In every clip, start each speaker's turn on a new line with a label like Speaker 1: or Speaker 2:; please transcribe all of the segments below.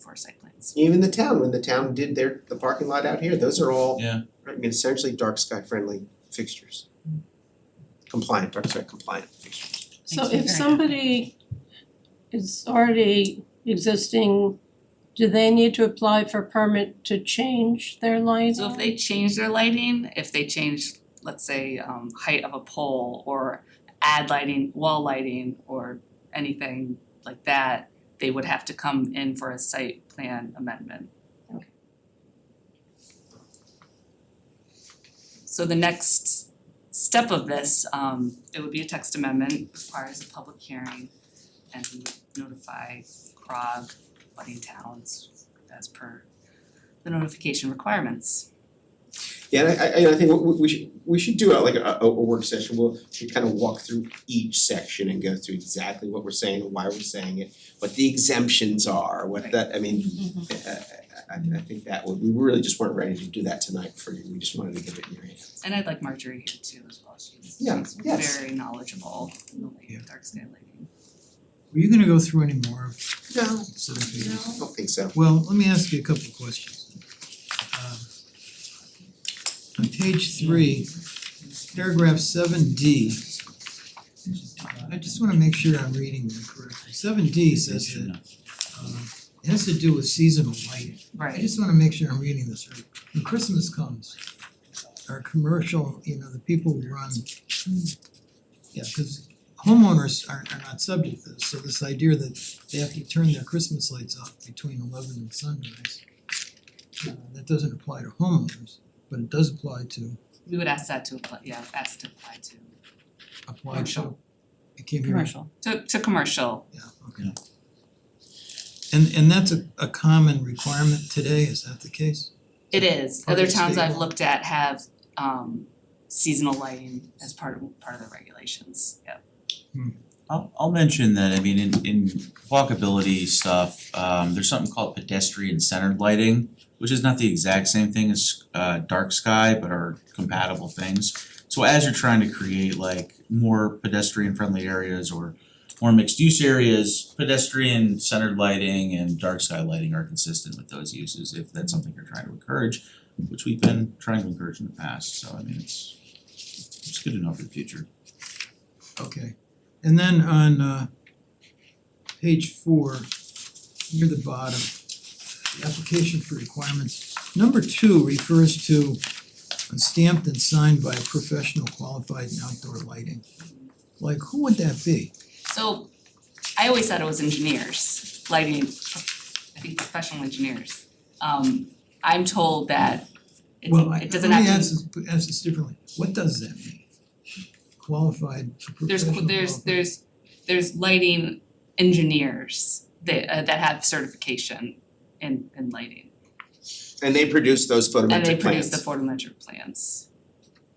Speaker 1: for site plans.
Speaker 2: Even the town, when the town did their, the parking lot out here, those are all,
Speaker 3: Yeah.
Speaker 2: I mean, essentially dark sky friendly fixtures. Compliant, dark sky compliant fixtures.
Speaker 4: So
Speaker 1: Makes me
Speaker 4: if
Speaker 1: very
Speaker 4: somebody is already existing, do they need to apply for permit to change their lighting?
Speaker 1: So if they change their lighting, if they change, let's say, um height of a pole or add lighting, wall lighting or anything like that, they would have to come in for a site plan amendment.
Speaker 4: Okay.
Speaker 1: So the next step of this, um it would be a text amendment, requires a public hearing and we would notify CROG, budding towns as per the notification requirements.
Speaker 2: Yeah, and I I I think we- we we should we should do a like a a a work session, we'll we kind of walk through each section and go through exactly what we're saying and why we're saying it, what the exemptions are, what
Speaker 1: Right. Mm-hmm.
Speaker 2: that, I mean, I I I I think that would, we really just weren't ready to do that tonight for you, we just wanted to get it in your hands.
Speaker 1: And I'd like Marjorie here too as well, she's
Speaker 2: Yeah,
Speaker 1: she's
Speaker 2: yes.
Speaker 1: very knowledgeable in the light-
Speaker 5: Yeah.
Speaker 1: dark sky lighting.
Speaker 5: Were you gonna go through any more of
Speaker 2: No,
Speaker 5: seven
Speaker 2: no,
Speaker 5: pages?
Speaker 2: I don't think so.
Speaker 5: Well, let me ask you a couple of questions. Um, On page three, paragraph seven D. I just wanna make sure I'm reading that correctly. Seven D says that um it has to do with seasonal lighting. I
Speaker 1: Right,
Speaker 5: just wanna make sure I'm reading this right. When Christmas comes, our commercial, you know, the people who run. Yeah, cause homeowners are are not subject to this, so this idea that they have to turn their Christmas lights off between eleven and sunrise. uh, that doesn't apply to homeowners, but it does apply to
Speaker 1: we would ask that to apply, yeah, ask to apply to,
Speaker 5: apply to.
Speaker 1: Commercial.
Speaker 5: I can't hear you.
Speaker 6: commercial.
Speaker 1: to to commercial,
Speaker 5: Yeah, okay. And and that's a a common requirement today, is that the case?
Speaker 1: it is,
Speaker 5: Part
Speaker 1: other
Speaker 5: of the
Speaker 1: towns
Speaker 5: state
Speaker 1: I've
Speaker 5: law.
Speaker 1: looked at have um seasonal lighting as part of part of the regulations, yeah.
Speaker 3: I'll I'll mention that, I mean, in in walkability stuff, um there's something called pedestrian centered lighting, which is not the exact same thing as uh dark sky, but are compatible things. So as you're trying to create like more pedestrian friendly areas or more mixed use areas, pedestrian centered lighting and dark sky lighting are consistent with those uses if that's something you're trying to encourage, which we've been trying to encourage in the past, so I mean, it's it's good enough for the future.
Speaker 5: Okay, and then on uh page four, near the bottom, the application for requirements. Number two refers to a stamped and signed by a professional qualified in outdoor lighting. Like, who would that be?
Speaker 1: So I always thought it was engineers, lighting, I think professional engineers. Um I'm told that it's
Speaker 5: Well, I
Speaker 1: it doesn't have to
Speaker 5: Let me ask this, put- ask this differently, what does that mean? Qualified,
Speaker 1: there's
Speaker 5: professional
Speaker 1: there's
Speaker 5: qualified.
Speaker 1: there's there's lighting engineers that uh that have certification in in lighting.
Speaker 2: And they produce those photometric plans.
Speaker 1: And they produce the photometric plans.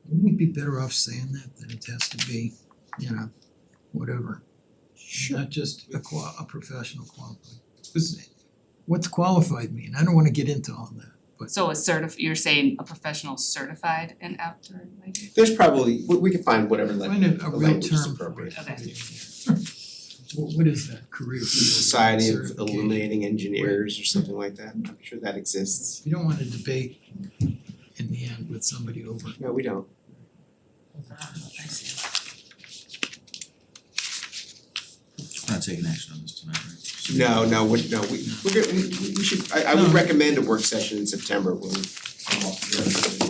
Speaker 5: Wouldn't we be better off saying that than it has to be, you know, whatever? Not just a qua- a professional qualified, 'Cause what's qualified mean? I don't wanna get into all that, but
Speaker 1: So a certif- you're saying a professional certified in outdoor lighting?
Speaker 2: There's probably, we we can find whatever like
Speaker 5: find a
Speaker 2: the
Speaker 5: a real
Speaker 2: language is
Speaker 5: term for
Speaker 2: appropriate.
Speaker 5: it.
Speaker 1: Okay.
Speaker 5: What what is that career?
Speaker 2: Society of
Speaker 5: Certification.
Speaker 2: Illuminating Engineers or something like that, I'm sure that exists.
Speaker 5: You don't wanna debate in the end with somebody over.
Speaker 2: No, we don't.
Speaker 3: We're not taking action on this tonight, right?
Speaker 2: No, no, we, no, we, we're gonna, we, we we should, I, I would
Speaker 5: No.
Speaker 2: recommend a work session in September when we come off the-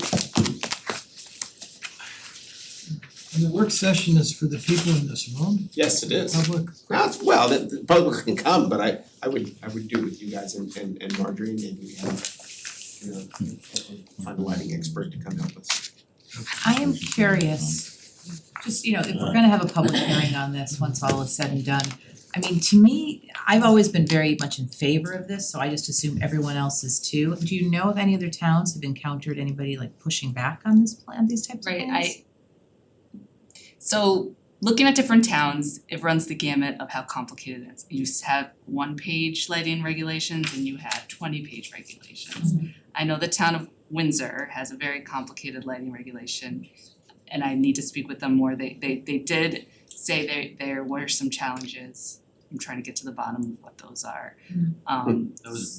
Speaker 5: And the work session is for the people in this room,
Speaker 2: Yes, it is.
Speaker 5: public,
Speaker 2: Well, it's- well, the, the public can come, but I, I would, I would do with you guys and, and, and Marjorie, maybe we have, you know, find a lighting expert to come help us.
Speaker 6: I am curious, just, you know, if we're gonna have a public hearing on this, once all is said and done. I mean, to me, I've always been very much in favor of this, so I just assume everyone else is too. Do you know if any other towns have encountered anybody like pushing back on this plan, these types of
Speaker 1: Right,
Speaker 6: plans?
Speaker 1: I so looking at different towns, it runs the gamut of how complicated it is. You s- have one page lighting regulations and you have twenty page regulations. I know the town of Windsor has a very complicated lighting regulation and I need to speak with them more. They they they did say there there were some challenges. I'm trying to get to the bottom of what those are.
Speaker 6: Mm.
Speaker 1: Um
Speaker 3: That was-